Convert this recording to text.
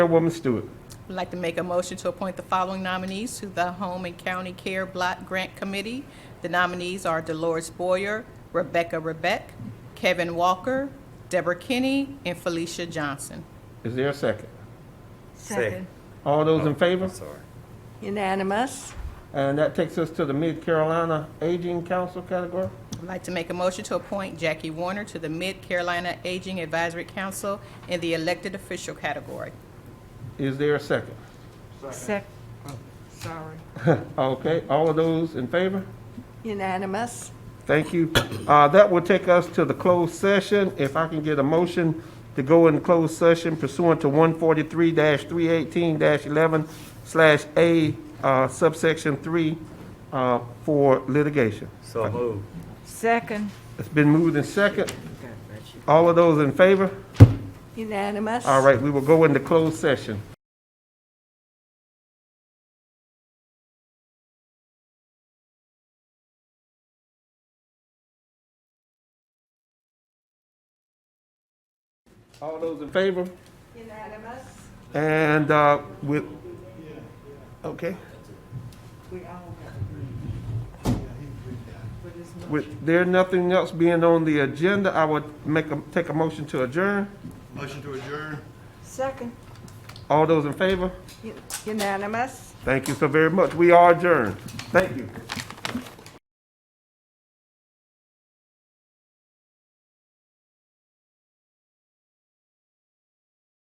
Chairwoman Stewart. I'd like to make a motion to appoint the following nominees to the Home and County Care Block Grant Committee. The nominees are Dolores Boyer, Rebecca Rebeck, Kevin Walker, Deborah Kinney, and Felicia Johnson. Is there a second? Second. All those in favor? I'm sorry. Unanimous. And that takes us to the Mid Carolina Aging Council category. I'd like to make a motion to appoint Jackie Warner to the Mid Carolina Aging Advisory Council in the elected official category. Is there a second? Sec, oh, sorry. Okay, all of those in favor? Unanimous. Thank you. Uh, That will take us to the closed session. If I can get a motion to go in closed session pursuant to 143-318-11/A uh, subsection 3 uh, for litigation. So moved. Second. It's been moved in second. All of those in favor? Unanimous. All right, we will go into closed session. All those in favor? Unanimous. And uh, with, okay. With there nothing else being on the agenda, I would make a, take a motion to adjourn. Motion to adjourn. Second. All those in favor? U- Unanimous. Thank you so very much. We are adjourned. Thank you.